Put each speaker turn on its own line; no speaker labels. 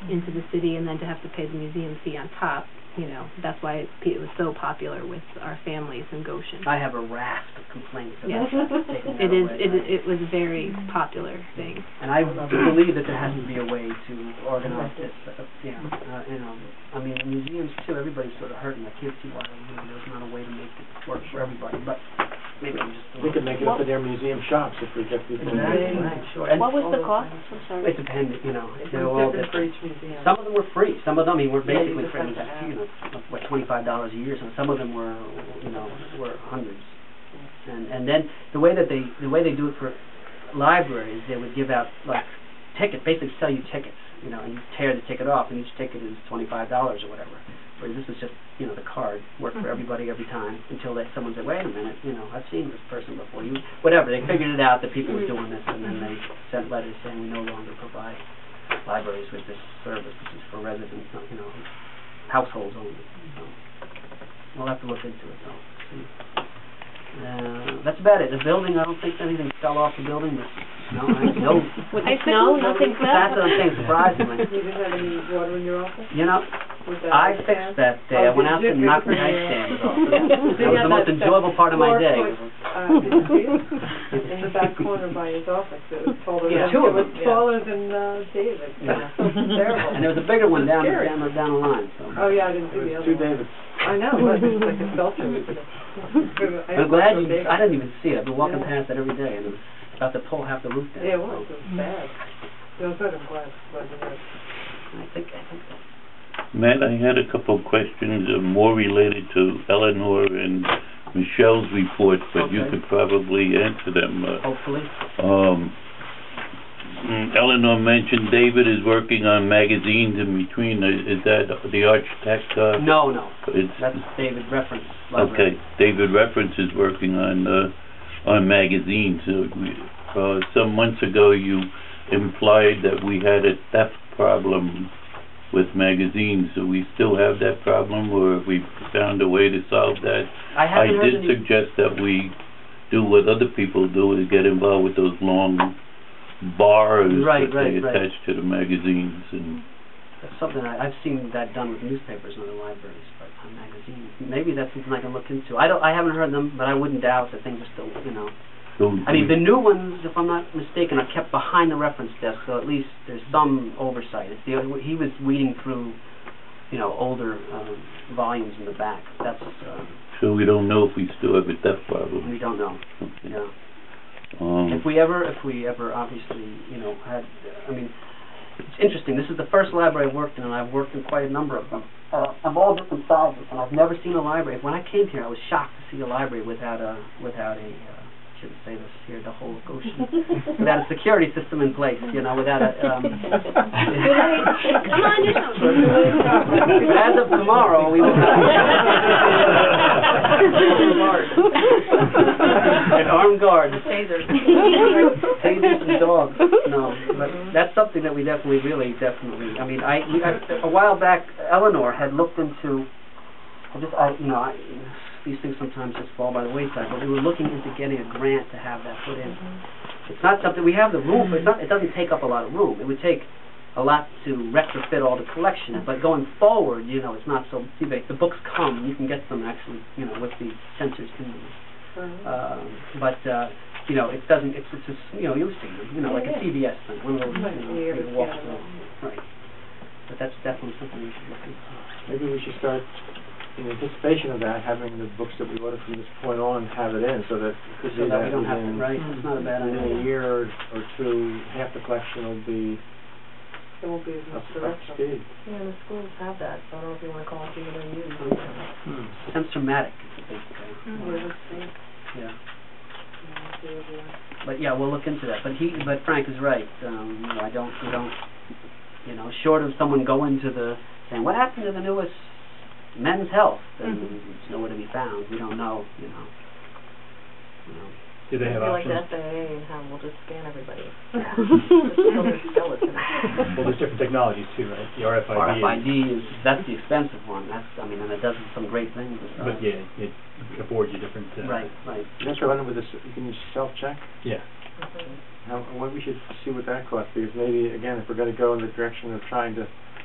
into the city and then to have to pay the museum fee on top, you know, that's why it, it was so popular with our families in Goshen.
I have a raft of complaints
Yes.
about that. taking that
It is,
away.
it, is- it was a very popular thing.
And I believe that there has to be a way to organize this, uh, yeah, uh, you know, I mean, museums too, everybody's sort of hurting, I can't see why, you know, there's not a way to make it work for everybody, but maybe I'm just.
We could make it up at their museum shops if we get people.
Exactly, right, sure. And
What was
all
the
those-
cost? I'm sorry.
It depended, you know,
It
they're all
was different for
different.
each museum.
Some of them were free, some of them, I mean, were
Yeah, you
basically free, which
just have to
is, you know, what, twenty-five dollars a year, so some of them were, you know, were hundreds. And, and then, the way that they, the way they do it for libraries, they would give out, like, ticket, basically sell you tickets, you know, and you tear the ticket off, and each ticket is twenty-five dollars or whatever. Whereas this was just, you know, the card, worked
Mm-hmm.
for
Mhm.
everybody every time, until that someone said, wait a minute, you know, I've seen this person before, you, whatever, they figured it out that people
Mm.
were
Mhm.
doing this, and then they sent letters saying, we no longer provide libraries with this service, which is for residents, not, you know, households only, so. We'll have to look into it, though, see. Uh, that's about it, the building, I don't think anything fell off the building, but, no, I, no,
With
I
the snow, nothing
couldn't-
that's what I'm saying, surprisingly.
You didn't have any water in your office?
You know,
Was that
I
okay?
fixed that day, I
Oh,
went out and knocked the nightstands off, yeah. That was the most enjoyable part of my day.
Uh, did you see it? In the back corner by his office, it was taller than,
Yeah,
it
two of them,
was
yeah.
taller than, uh, David,
Yeah.
yeah, terrible.
And there was a bigger one down,
Scary.
down, the- down the line, so.
Oh, yeah, I didn't
It
see the other
was two
one.
Davids.
I know, it was just like a shelter. I
I'm glad you,
David.
I didn't even see it, I've been walking
Yeah.
past it every day, and it was about to pull half the roof down.
Yeah, it was,
so
it was bad. It was good, I'm glad, glad to hear it.
I think, I think that's
Matt, I had a couple of questions, uh, more related to Eleanor and Michelle's report, but you
Okay.
could probably answer them. Uh,
hopefully.
um, mm, Eleanor mentioned David is working on magazines in between. uh, Is is that the architect? uh,
No, no,
It's,
that's David reference.
okay,
library.
David Reference is working on, uh, on magazines. Uh, we- Uh, some months ago, you implied that we had a theft problem with magazines. Do we still have that problem, or have we found a way to solve that?
I
I
haven't heard
did
any,
suggest that we do what other people do, is get involved with those long bars
Right,
that they
right, right.
attach to the magazines, and
that's something, I, I've seen that done with newspapers and other libraries, but on magazines. Maybe that's something I can look into. I don't, I haven't heard them, but I wouldn't doubt that things are still, you know,
so...
I mean, the new ones, if I'm not mistaken, are kept behind the reference desk, so at least there's some oversight. It's the, he was weeding through, you know, older um, volumes in the back. That's, uh,
So we don't know if we still have a theft problem.
we don't know,
Okay.
yeah.
Um,
If we ever, if we ever, obviously, you know, had, I mean, it's interesting, this is the first library I've worked in, and I've worked in quite a number of them, uh, of all different sizes, and I've never seen a library, when I came here, I was shocked to see a library without a, without a, uh, shouldn't say this here, the whole Goshen, without a security system in place, you know, without a, um.
Come on
But As of tomorrow, we will have. An armed guard. Tasers and dogs, no, but that's something that we definitely, really, definitely, I mean, I, we- I- a while back, Eleanor had looked into, I just, I, you know, I, these things sometimes just fall by the wayside, but we were looking into getting a grant to have that put in. It's not something, we have the room, but it's not, it doesn't take up a lot of room, it would take a lot to retrofit all the collection, but going forward, you know, it's not so, see, the, the books come, you can get them actually, you know, with the sensors in them. Um, but, uh, you know, it doesn't, it's, it's, just, you know, you'll see them, you know, like a CVS thing, one of those, you know,
Yeah,
big
yeah.
walk through. Right. But that's definitely something we should look into.
Maybe we should start, in anticipation of that, having the books that we order from this point on, have it in, so that. Mm-hmm. we could
So
do
that we don't have to,
within-
right, it's not a bad
Within a
idea.
year or or two, half the collection will be
It won't be as
up
much
to up to
direction.
speed.
Yeah, the schools have that, so I don't know if you wanna call it even a new.
Hmm. Sensormatic is a big thing,
Mm-hmm.
yeah. But yeah, we'll look into that. But he, but Frank is right. Um, you know, I don't, we don't, you know, short of someone going to the saying, what happened to the newest men's health? And
Mm-hmm.
Mhm.
it's nowhere to be found. We don't know. You know. You know.
Do they
I
have
feel like
options?
the SAA and how we'll just scan everybody.
Well, there's different technologies too, right? The RFID. is-
RFID is that's the expensive one. That's I mean, and it does some great things. uh,
But yeah, it can afford you different.
Um,
uh,
Right, right.
That's what I wonder with this, you can self-check.
Yeah.
How, what we should see what that costs, because maybe, again, if we're gonna go in the direction of trying to